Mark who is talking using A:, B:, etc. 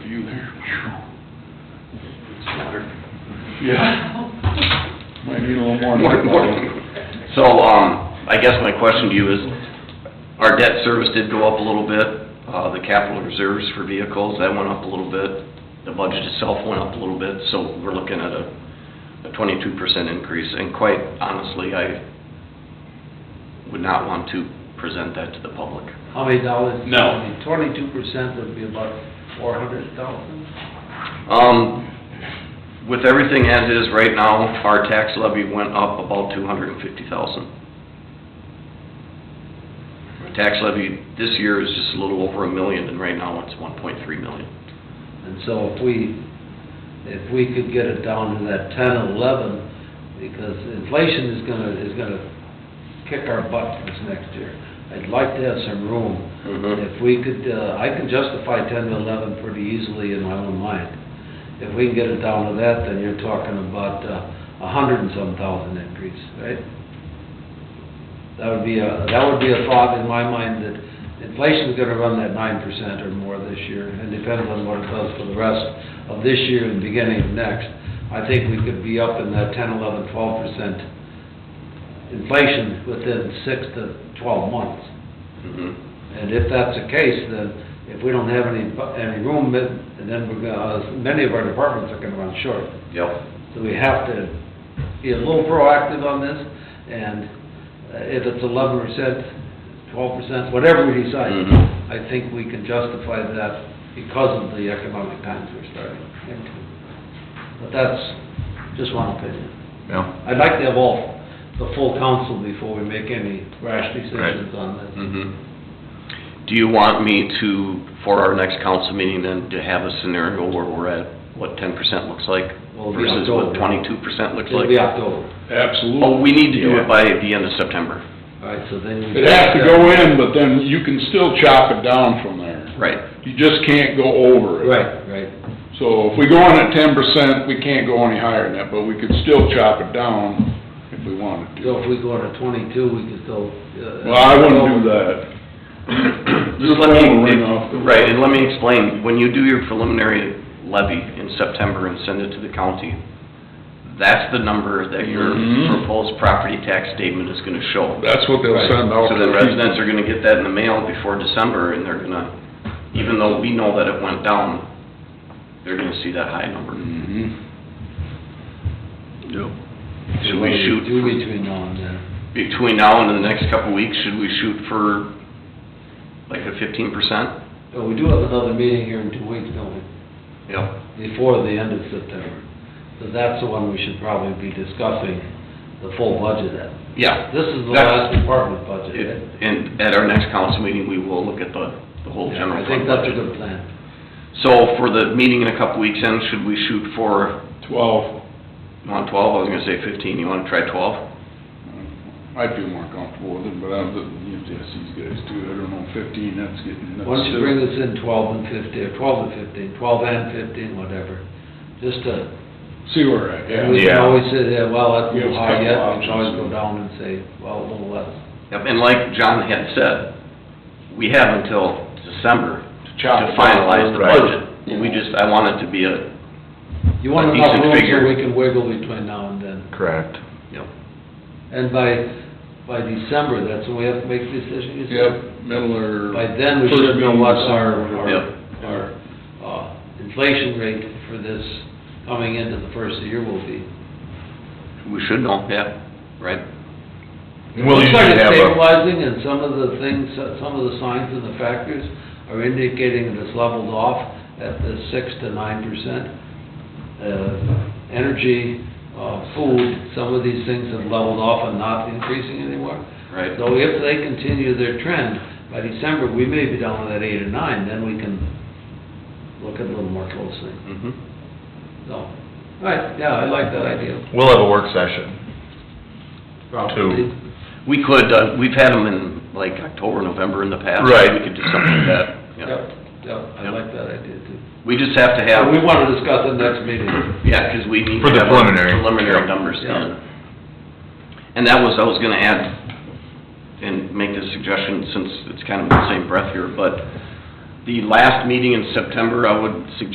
A: Yeah. Might need a little more.
B: More- more. So, um, I guess my question to you is, our debt service did go up a little bit, uh, the capital reserves for vehicles, that went up a little bit, the budget itself went up a little bit, so we're looking at a, a twenty-two percent increase, and quite honestly, I would not want to present that to the public.
C: How many dollars?
A: No.
C: Twenty-two percent would be about four hundred thousand.
B: Um, with everything as is right now, our tax levy went up about two hundred and fifty thousand. Our tax levy this year is just a little over a million, and right now it's one point three million.
C: And so if we, if we could get it down to that ten, eleven, because inflation is gonna, is gonna kick our butt this next year. I'd like to have some room.
B: Mhm.
C: If we could, uh, I can justify ten to eleven pretty easily in my own mind. If we can get it down to that, then you're talking about uh, a hundred and some thousand increase, right? That would be a, that would be a thought in my mind that inflation's gonna run that nine percent or more this year, and depending on what it does for the rest of this year and beginning of next, I think we could be up in that ten, eleven, twelve percent inflation within six to twelve months.
B: Mhm.
C: And if that's the case, then if we don't have any, bu- any room, then then we're gonna, uh, many of our departments are gonna run short.
B: Yep.
C: So we have to be a little proactive on this, and uh, if it's eleven percent, twelve percent, whatever we decide,
B: Mhm.
C: I think we can justify that because of the economic times we're starting into. But that's just one opinion.
D: Yeah.
C: I'd like to have all, the full council before we make any rash decisions on this.
B: Mhm. Do you want me to, for our next council meeting then, to have a scenario where we're at what ten percent looks like
C: Well, it'll be
B: versus what
C: October.
B: twenty-two percent looks
C: It'll
B: like?
C: be October.
A: Absolutely.
B: Oh, we need to do it by the end of September.
C: All right, so then we...
A: It has to go in, but then you can still chop it down from there.
B: Right.
A: You just can't go over it.
C: Right, right.
A: So if we go in at ten percent, we can't go any higher than that, but we could still chop it down if we wanted to.
C: So if we go to twenty-two, we can still... uh,
A: Well, I wouldn't do that.
B: Just let me,
A: Your phone will ring off the-
B: right, and let me explain, when you do your preliminary levy in September and send it to the county, that's the number that your
A: Mhm.
B: proposed property tax statement is gonna show.
A: That's what they'll send out.
B: So then residents are gonna get that in the mail before December, and they're gonna, even though we know that it went down, they're gonna see that high number.
A: Mhm.
B: Yep. Should we shoot
C: Do
B: for-
C: between now and then.
B: between now and the next couple of weeks, should we shoot for like a fifteen percent?
C: But we do have another meeting here in two weeks, don't
B: Yep.
C: we? Before the end of September. So that's the one we should probably be discussing the full budget at.
B: Yeah.
C: This is the
B: That's-
C: last department budget, right?
B: It- And at our next council meeting, we will look at the, the whole
C: Yeah,
B: general
C: I
B: fund
C: think that's a
B: budget.
C: good plan.
B: So for the meeting in a couple weeks in, should we shoot for,
A: Twelve,
B: you want twelve, I was gonna say fifteen, you wanna try twelve?
A: I'd feel more comfortable with it, but I'm, usually I see these guys too, I don't know, fifteen, that's getting nuts.
C: Why don't you bring this in twelve and fifteen, or twelve and fifteen, twelve and fifteen, whatever. Just to
A: See where we're at, yeah.
C: And we can always say, yeah, well, that's a
A: Yeah, it's
C: little high
A: a
C: yet,
A: couple
C: we can always go
A: options.
C: down and say, well, a little less.
B: Yep, and like John had said, we have until December
A: chop
B: to
A: it down.
B: finalize the
D: Right.
B: budget. We just, I want it to be a,
C: You want
B: A
C: enough
B: decent
C: room
B: figure.
C: so we can wiggle between now and then.
D: Correct.
B: you know,
C: And by, by December, that's when we have to make the decision, you said?
A: Yep, middle or.
C: By then, we
A: first
C: should know
A: meeting
C: what
A: or
C: our,
A: something.
B: Yep.
C: our, our, uh, inflation rate for this coming into the first of the year will be.
B: we should know, yeah, right?
D: We'll
C: Looks like
D: usually
C: it's
D: have a,
C: stabilizing, and some of the things, some of the signs and the factors are indicating that it's leveled off at the six to nine percent. Uh, energy, uh, food, some of these things have leveled off and not increasing anymore.
B: Right.
C: So if they continue their trend, by December, we may be down to that eight or nine, then we can look at it a little more closely.
B: Mm-hmm.
C: So, all right, yeah, I like that idea.
D: we'll have a work session.
C: Probably.
B: We could, uh, we've had them in like October, November in the past.
D: Right.
B: We could do something like that,
C: Yep,
B: yeah.
C: yep, I
B: Yep.
C: like that idea too.
B: We just have to have.
C: Yeah, we want to discuss it next meeting.
B: Yeah, 'cause we need to
D: For the
B: have our
D: preliminary.
B: preliminary
D: Yeah.
B: numbers
C: Yeah.
B: done. And that was, I was gonna add, and make this suggestion since it's kind of in the same breath here, but the last meeting in September, I would suggest